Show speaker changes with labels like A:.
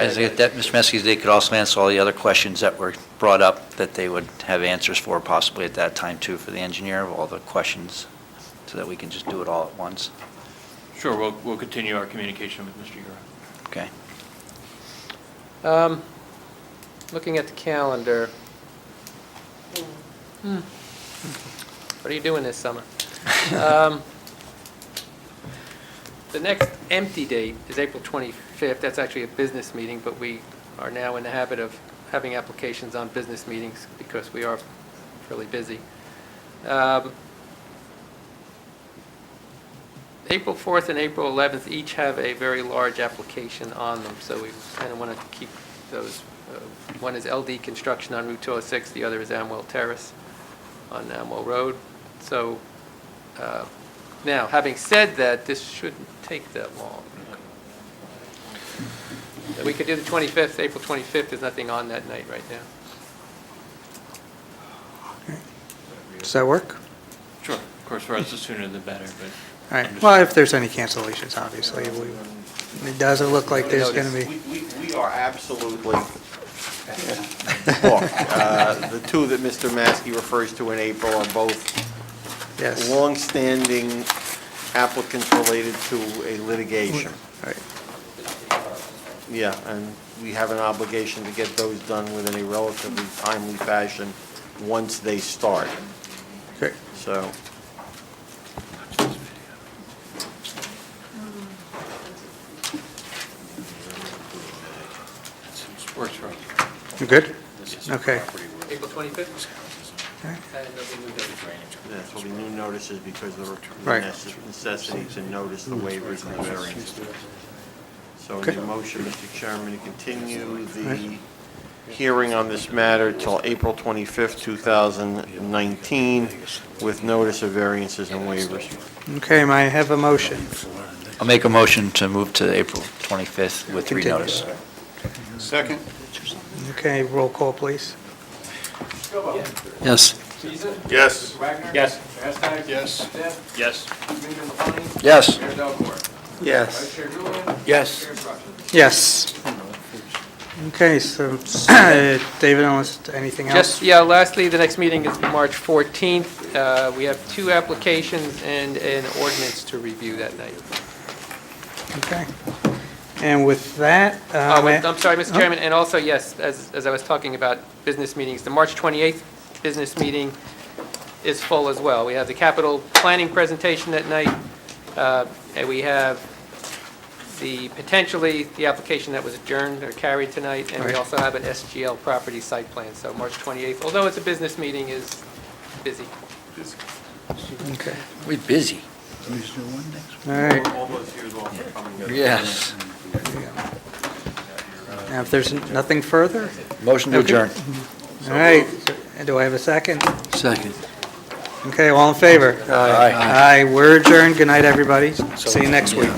A: As they get that, Mr. Meskey, they could also answer all the other questions that were brought up that they would have answers for possibly at that time too for the engineer of all the questions, so that we can just do it all at once.
B: Sure, we'll, we'll continue our communication with Mr. Yura.
A: Okay?
C: Um, Looking at the calendar. Hmm. What are you doing this summer? Um, The next empty date is April 25th. That's actually a business meeting, but we are now in the habit of having applications on business meetings because we are fairly busy. Um, April 4th and April 11th each have a very large application on them, so we kind of want to keep those. uh, One is LD Construction on Route 206, the other is Amwell Terrace on Amwell Road. So, uh, now, having said that, this shouldn't take that long. We could do the 25th, April 25th, there's nothing on that night right now.
D: Does that work?
B: Sure, of course, for us, the sooner the better, but.
D: All right, well, if there's any cancellations, obviously, we, it doesn't look like there's going to be.
E: We, we, we are absolutely booked. Uh, The two that Mr. Maskey refers to in April are both
D: Yes. All
E: longstanding applicants related to a litigation.
D: right.
E: Yeah, and we have an obligation to get those done within a relatively timely fashion once they start,
D: Okay.
E: so.
B: Works for us.
D: You good? Okay.
C: April 25th?
D: Okay.
C: And nothing moved over.
E: That's will be new notices because of the
D: Right.
E: necess- necessity to notice the waivers and the variances. So
D: Okay.
E: the motion, Mr. Chairman, to continue the
D: Right.
E: hearing on this matter till April 25th, 2019, with notice of variances and waivers.
D: Okay, may I have a motion?
A: I'll make a motion to move to April 25th with three
D: Continue.
A: notice.
E: Second.
D: Okay, roll call, please.
A: Yes.
E: Yes.
B: Yes. Yes.
A: Yes.
D: Yes.
B: Yes.
D: Yes. Okay, so uh, David, unless anything
C: Just,
D: else?
C: yeah, lastly, the next meeting is March 14th. Uh, We have two applications and an ordinance to review that night.
D: Uh, Okay. And with that, uh,
C: Oh,
D: may-
C: and- I'm sorry, Mr.
D: Oh.
C: Chairman, and also, yes, as, as I was talking about business meetings, the March 28th business meeting is full as well. We have the capital planning presentation that night, uh, and we have the, potentially, the application that was adjourned or carried tonight, and we
D: Right.
C: also have an SGL property site plan, so March 28th, although it's a business meeting, is busy.
D: okay.
A: We're busy.
D: All right.
E: All those years off are coming up.
A: Yes.
D: Now, if there's nothing further,
A: Motion to adjourn.
D: all right. And Do I have a second?
A: Second.
D: Okay, all in favor?
A: Aye.
D: Aye, we're adjourned. Good night, everybody. See you next week.